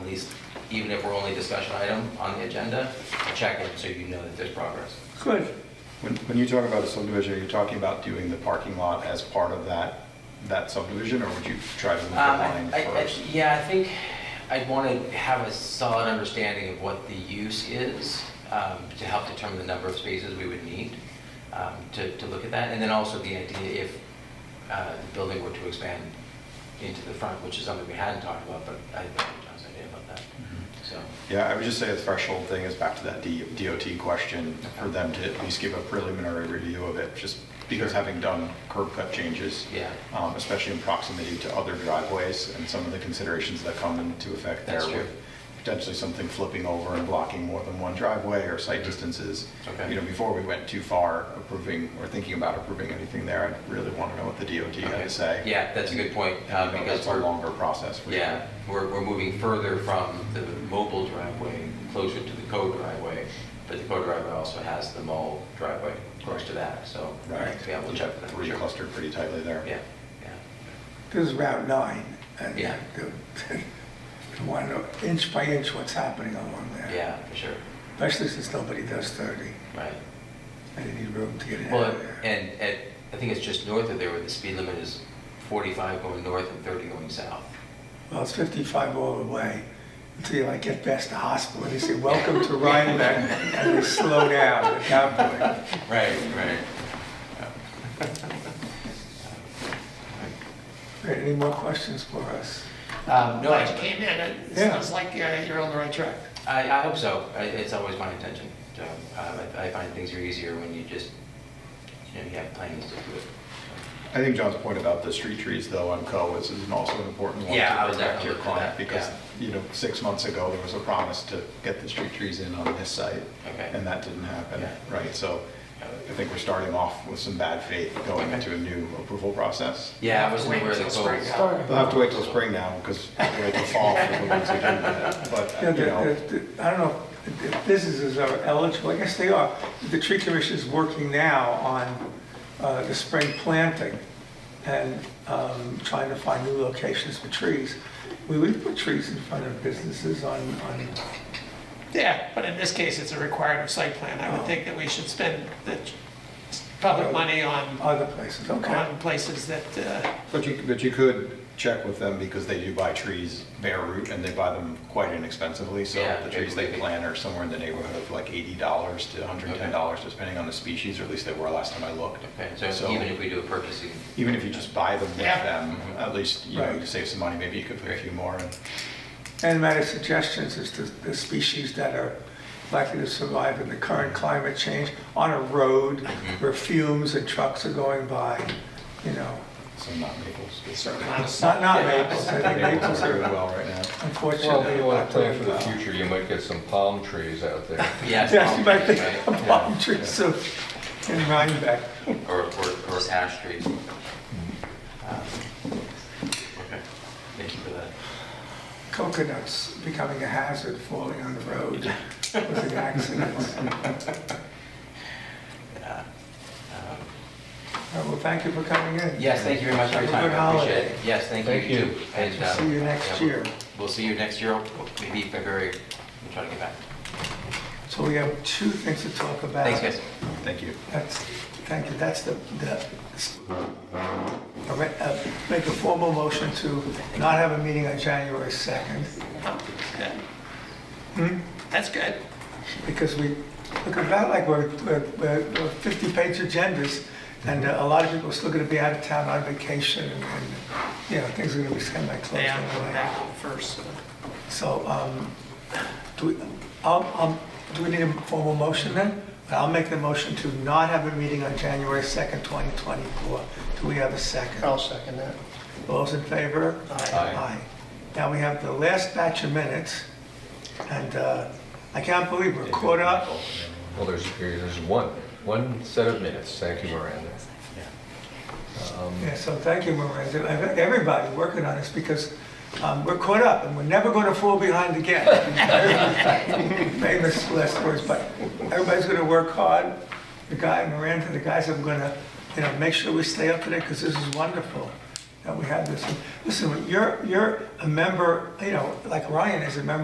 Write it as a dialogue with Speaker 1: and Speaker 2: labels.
Speaker 1: least, even if we're only discussion item on the agenda, check it so you know that there's progress.
Speaker 2: Good.
Speaker 3: When, when you talk about a subdivision, are you talking about doing the parking lot as part of that, that subdivision, or would you try to move the
Speaker 1: Um, I-
Speaker 3: line
Speaker 1: I- I-
Speaker 3: first?
Speaker 1: Yeah, I think I'd want to have a solid understanding of what the use is um, to help determine the number of spaces we would need um, to, to look at that. And then also the idea if uh, the building were to expand into the front, which is something we hadn't talked about, but I think John's idea about that,
Speaker 3: Mm-hmm.
Speaker 1: so.
Speaker 3: Yeah, I would just say the threshold thing is back to that D- DOT question, for them to at least give a preliminary review of it, just because
Speaker 1: Sure.
Speaker 3: having done curb cut changes,
Speaker 1: Yeah.
Speaker 3: um, especially in proximity to other driveways and some of the considerations that come into effect there
Speaker 1: That's true.
Speaker 3: with potentially something flipping over and blocking more than one driveway or site distances.
Speaker 1: Mm-hmm. Okay.
Speaker 3: You know, before we went too far approving or thinking about approving anything there, I really want to know what the DOT had
Speaker 1: Okay.
Speaker 3: to say.
Speaker 1: Yeah, that's a good point, uh,
Speaker 3: You know,
Speaker 1: because
Speaker 3: That's a
Speaker 1: we're-
Speaker 3: longer process. for sure.
Speaker 1: Yeah, we're, we're moving further from the mobile driveway, closer to the code driveway, but the code driveway also has the mall driveway close to that, so.
Speaker 3: Right.
Speaker 1: Yeah, we'll check that.
Speaker 3: Three
Speaker 1: Sure.
Speaker 3: clustered pretty tightly there.
Speaker 1: Yeah, yeah.
Speaker 2: This is Route 9. and
Speaker 1: Yeah.
Speaker 2: the- You want to know inch by inch what's happening along there.
Speaker 1: Yeah, for sure,
Speaker 2: Especially since nobody does 30,
Speaker 1: right.
Speaker 2: and you need room to get in
Speaker 1: Well,
Speaker 2: out of there.
Speaker 1: and, and I think it's just north of there where the speed limit is 45 going north and 30 going south.
Speaker 2: Well, it's 55 all the way, until you like get past the hospital, and they say, welcome to Rhinebeck, and they slow down at that point.
Speaker 1: Right, right.
Speaker 2: Great, any more questions for us?
Speaker 1: Um, No,
Speaker 4: Glad you
Speaker 1: I,
Speaker 4: came in. It
Speaker 2: Yeah.
Speaker 4: sounds like uh, you're on the right track.
Speaker 1: I I hope so. I- It's always my intention. So, um, I I find things are easier when you just, you know, you have plans to do it.
Speaker 3: I think John's point about the street trees though on Co is is also an important one.
Speaker 1: Yeah,
Speaker 3: to
Speaker 1: I was
Speaker 3: protect
Speaker 1: definitely
Speaker 3: your
Speaker 1: looking at
Speaker 3: client
Speaker 1: that,
Speaker 3: Because, you know, six months ago, there was a promise to get the street trees in on this site.
Speaker 1: Okay.
Speaker 3: And that didn't happen,
Speaker 1: Yeah.
Speaker 3: right? So I think we're starting off with some bad faith going
Speaker 1: Okay.
Speaker 3: into a new approval process.
Speaker 1: Yeah, I
Speaker 4: Have to
Speaker 1: wasn't
Speaker 4: wait
Speaker 1: aware of the
Speaker 4: until spring.
Speaker 1: code.
Speaker 4: Start.
Speaker 3: We'll have to wait till spring now because we'll wait till fall for the ones who do that. But,
Speaker 2: Yeah,
Speaker 3: you know,
Speaker 2: the- the- the- I don't know if- if businesses are eligible, I guess they are. The tree commission is working now on uh, the spring planting and um, trying to find new locations for trees. We would put trees in front of businesses on, on,
Speaker 4: Yeah, but in this case, it's a required of site plan. I
Speaker 2: Oh.
Speaker 4: would think that we should spend the ch- public money on,
Speaker 2: other places, okay?
Speaker 4: on places that, uh,
Speaker 3: but you, but you could check with them because they do buy trees bare root and they buy them quite inexpensively. So
Speaker 1: Yeah,
Speaker 3: the
Speaker 1: maybe
Speaker 3: trees they
Speaker 1: they-
Speaker 3: plant are somewhere in the neighborhood of like eighty dollars to hundred and ten dollars, depending on the species, or at least they were last time I looked.
Speaker 1: Okay, so even if we Mm-hmm. do a purchasing,
Speaker 3: Even if you just buy them with
Speaker 4: Yeah.
Speaker 3: them, at least, you know,
Speaker 2: Right.
Speaker 3: you save some money. Maybe you could put a few more in.
Speaker 2: And my suggestions is to the species that are likely to survive in the current climate change on a road where fumes and trucks are going by, you know.
Speaker 3: some not maples.
Speaker 4: certain amount of-
Speaker 2: It's not, not maples, I think
Speaker 3: Maples
Speaker 2: maples
Speaker 3: are doing
Speaker 2: are
Speaker 3: well right now.
Speaker 2: unfortunately.
Speaker 5: Well, if you want to plan for the
Speaker 2: not doing well.
Speaker 5: future, you might get some palm trees out there.
Speaker 1: yeah. it's
Speaker 2: Yes, you might
Speaker 1: probably,
Speaker 2: think
Speaker 1: right?
Speaker 2: of palm trees so- in Rhinebeck.
Speaker 1: Or, or, or ash trees. Um,
Speaker 3: Mm-hmm.
Speaker 1: Okay, thank you for that.
Speaker 2: Coconuts becoming a hazard, falling on the road, causing accidents.
Speaker 1: Yeah. Um,
Speaker 2: Uh, Well, thank you for coming in.
Speaker 1: Yes, thank you very much for your
Speaker 2: Have a
Speaker 1: time,
Speaker 2: good
Speaker 1: I appreciate it.
Speaker 2: holiday.
Speaker 1: Yes, thank you,
Speaker 5: Thank
Speaker 1: you
Speaker 5: you.
Speaker 1: too. And, uh,
Speaker 2: See you next
Speaker 1: yeah, we'll-
Speaker 2: year.
Speaker 1: We'll see you next year, maybe February, we'll try to get back.
Speaker 2: So we have two things to talk about.
Speaker 1: Thanks, guys.
Speaker 3: Thank you.
Speaker 2: That's, thank you, that's the, the, All right, uh, make a formal motion to not have a meeting on January 2nd, Hmm?
Speaker 4: That's good.
Speaker 2: because we, look about like we're, we're- we're 50-page agendas, and uh, a lot of people are still gonna be out of town on vacation, and, and, you know, things are gonna be semi-closed
Speaker 4: Yeah, I'm going
Speaker 2: anyway.
Speaker 4: back home first. so.
Speaker 2: So, um, do we, um, um, do we need a formal motion then? I'll make the motion to not have a meeting on January 2nd, 2024. Do we have a second?
Speaker 4: I'll second that.
Speaker 2: All Those in favor?
Speaker 4: Aye.
Speaker 1: Aye.
Speaker 2: Now we have the last batch of minutes, and uh, I can't believe we're caught up.
Speaker 5: Well, there's, there's one, one set of minutes, thank you, Miranda.
Speaker 2: Yeah, so thank you, Miranda, and everybody working on this, because um, we're caught up, and we're never going to fall behind again. Famous last words, but everybody's going to work hard. The guy, Miranda, the guys, I'm going to, you know, make sure we stay up today, because this is wonderful that we have this. Listen, you're, you're a member, you know, like Ryan is a member